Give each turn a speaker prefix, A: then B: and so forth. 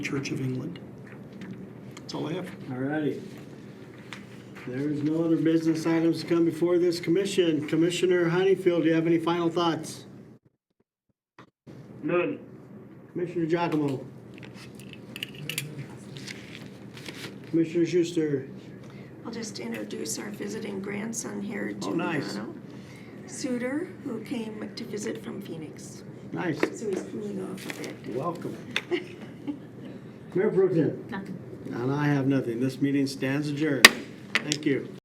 A: Church of England. That's all I have.
B: All righty. There is no other business items to come before this commission. Commissioner Honeyfield, do you have any final thoughts?
C: None.
B: Commissioner Giacomo? Commissioner Schuster?
D: I'll just introduce our visiting grandson here,
B: Oh, nice.
D: Giuliano Suter, who came to visit from Phoenix.
B: Nice.
D: So he's coming off of it.
B: Welcome. Mayor Pro Tem? Nothing. And I have nothing. This meeting stands adjourned. Thank you.